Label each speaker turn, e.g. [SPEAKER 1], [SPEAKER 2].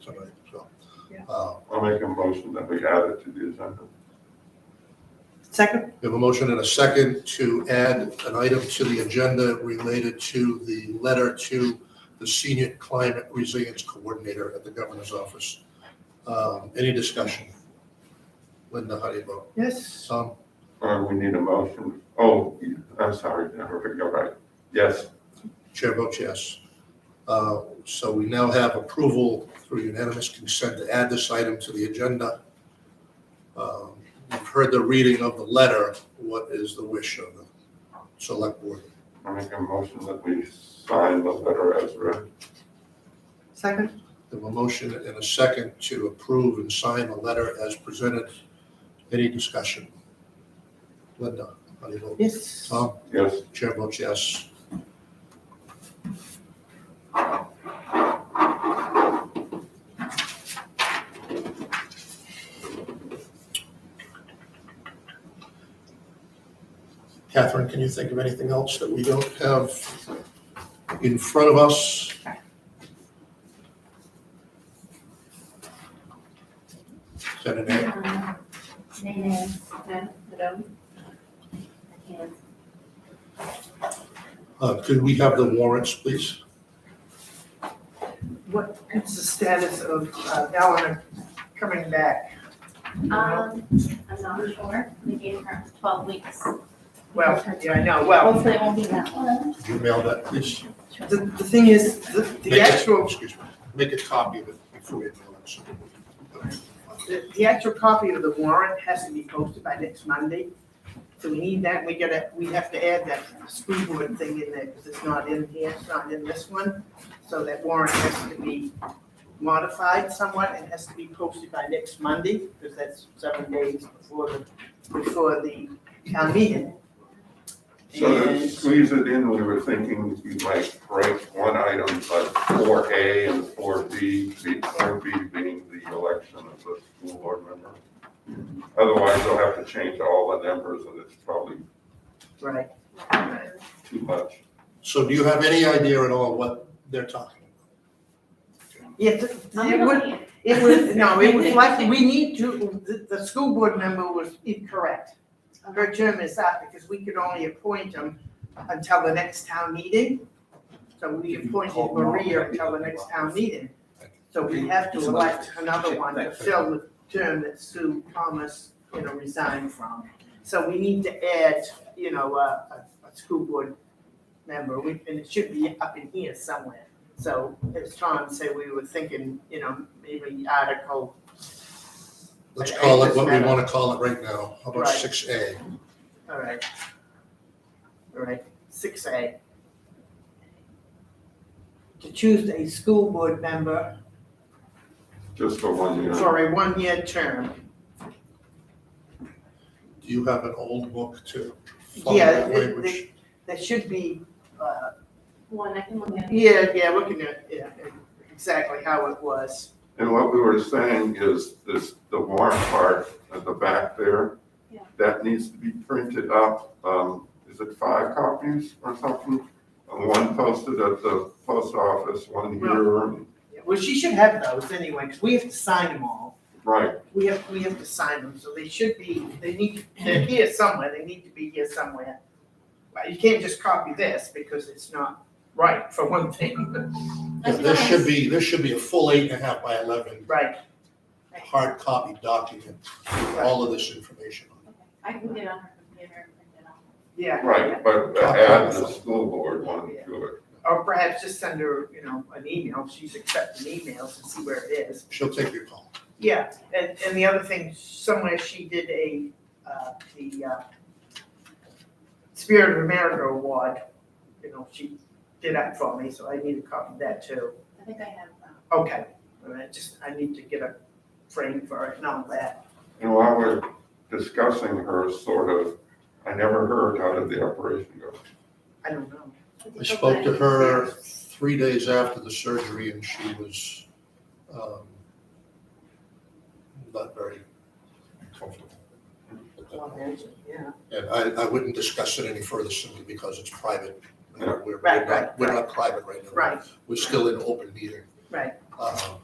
[SPEAKER 1] tonight, so.
[SPEAKER 2] Yeah.
[SPEAKER 1] uh,
[SPEAKER 3] I'll make a motion that we add it to the agenda.
[SPEAKER 4] Second?
[SPEAKER 1] We have a motion and a second to add an item to the agenda related to the letter to the Senior Climate Resilience Coordinator at the Governor's Office. Um, Any discussion? Linda, how do you vote?
[SPEAKER 4] Yes.
[SPEAKER 1] Tom?
[SPEAKER 3] Uh, we need a motion. Oh, I'm sorry, I heard it go right. Yes,
[SPEAKER 1] Chair votes yes. Uh, So we now have approval through unanimous consent to add this item to the agenda. Um, You've heard the reading of the letter. What is the wish of the select board?
[SPEAKER 3] I'll make a motion that we sign the letter as written.
[SPEAKER 4] Second?
[SPEAKER 1] We have a motion and a second to approve and sign the letter as presented. Any discussion? Linda, how do you vote?
[SPEAKER 4] Yes.
[SPEAKER 1] Tom,
[SPEAKER 3] Yes,
[SPEAKER 1] chair votes yes. Catherine, can you think of anything else that we don't have in front of us? Is that an A? Uh, Could we have the warrants, please?
[SPEAKER 4] What is the status of uh, Eleanor coming back?
[SPEAKER 2] Um, I'm not sure, we gave her twelve weeks.
[SPEAKER 4] Well, yeah, I know, well,
[SPEAKER 2] Hopefully it won't be that long.
[SPEAKER 1] Could you mail that, please?
[SPEAKER 4] the, the thing is, the,
[SPEAKER 1] Make
[SPEAKER 4] the
[SPEAKER 1] a-
[SPEAKER 4] actual,
[SPEAKER 1] Excuse me, make a copy of it before you mail it. so we can-
[SPEAKER 4] the, the actual copy of the warrant has to be posted by next Monday. So we need that, we gotta, we have to add that school board thing in there, because it's not in here, it's not in this one. So that warrant has to be modified somewhat, and has to be posted by next Monday, because that's seven days before the, before the town meeting.
[SPEAKER 3] so to
[SPEAKER 4] And-
[SPEAKER 3] squeeze it in, we were thinking you might break one item like four A and four B, the four B being the election of the school board member. Otherwise, they'll have to change all the numbers and it's probably
[SPEAKER 4] Right.
[SPEAKER 3] too much.
[SPEAKER 1] So do you have any idea at all what they're talking about?
[SPEAKER 4] Yeah, th- it would, it would, no, it was like, we need to, the, the school board member was incorrect. Her term is up because we could only appoint him until the next town meeting. So we appointed Maria until the next town meeting. So we have to elect another one to fill the term that Sue Thomas, you know, resigned from. So we need to add, you know, a, a, a school board member, we, and it should be up in here somewhere. So as Tom said, we were thinking, you know, maybe article,
[SPEAKER 1] Let's
[SPEAKER 4] Like,
[SPEAKER 1] call
[SPEAKER 4] I
[SPEAKER 1] it what we
[SPEAKER 4] just-
[SPEAKER 1] want to call it right now. How about
[SPEAKER 4] Right.
[SPEAKER 1] six A?
[SPEAKER 4] all right. All right, six A. To choose a school board member
[SPEAKER 3] Just for one year.
[SPEAKER 4] for a one-year term.
[SPEAKER 1] Do you have an old book to follow
[SPEAKER 4] Yeah,
[SPEAKER 1] that
[SPEAKER 4] it-
[SPEAKER 1] language?
[SPEAKER 4] it- that should be, uh,
[SPEAKER 2] One, I can look at. it.
[SPEAKER 4] yeah, yeah, looking at, yeah, exactly how it was.
[SPEAKER 3] And what we were saying is this, the warrant part at the back there,
[SPEAKER 2] Yeah.
[SPEAKER 3] that needs to be printed up. Um, is it five copies or something? Uh, One posted at the post office, one here, and-
[SPEAKER 4] Yeah, Well, she should have those anyway, because we have to sign them all.
[SPEAKER 3] right,
[SPEAKER 4] We have, we have to sign them, so they should be, they need, they're here somewhere, they need to be here somewhere. But you can't just copy this because it's not right, for one thing,
[SPEAKER 1] Yeah,
[SPEAKER 2] I
[SPEAKER 1] This should
[SPEAKER 2] suppose.
[SPEAKER 1] be, this should be a full eight and a half by eleven,
[SPEAKER 4] right?
[SPEAKER 1] hard copy document with all of this information. on it.
[SPEAKER 2] Okay. I can get on her computer and print it out.
[SPEAKER 4] Yeah.
[SPEAKER 3] right, but add the school board one to it.
[SPEAKER 4] Or perhaps just send her, you know, an email, she's accepting emails and see where it is.
[SPEAKER 1] She'll take your call.
[SPEAKER 4] Yeah, and, and the other thing, somewhere she did a, uh, the, uh, Spirit of America Award, you know, she did that for me, so I need a copy of that too.
[SPEAKER 2] I think I have, um,
[SPEAKER 4] Okay, all right, just, I need to get a frame for it and all that.
[SPEAKER 3] And while we're discussing her sort of, I never heard how did the operation go.
[SPEAKER 4] I don't know.
[SPEAKER 2] um,
[SPEAKER 1] I spoke to her three days after the surgery and she was um, not very comfortable.
[SPEAKER 4] I'll imagine, Yeah,
[SPEAKER 1] And I, I wouldn't discuss it any further simply because it's private. We're, we're
[SPEAKER 4] Right,
[SPEAKER 1] not, we're not private right now.
[SPEAKER 4] right,
[SPEAKER 1] We're still in open meeting.
[SPEAKER 4] Right.
[SPEAKER 1] Um,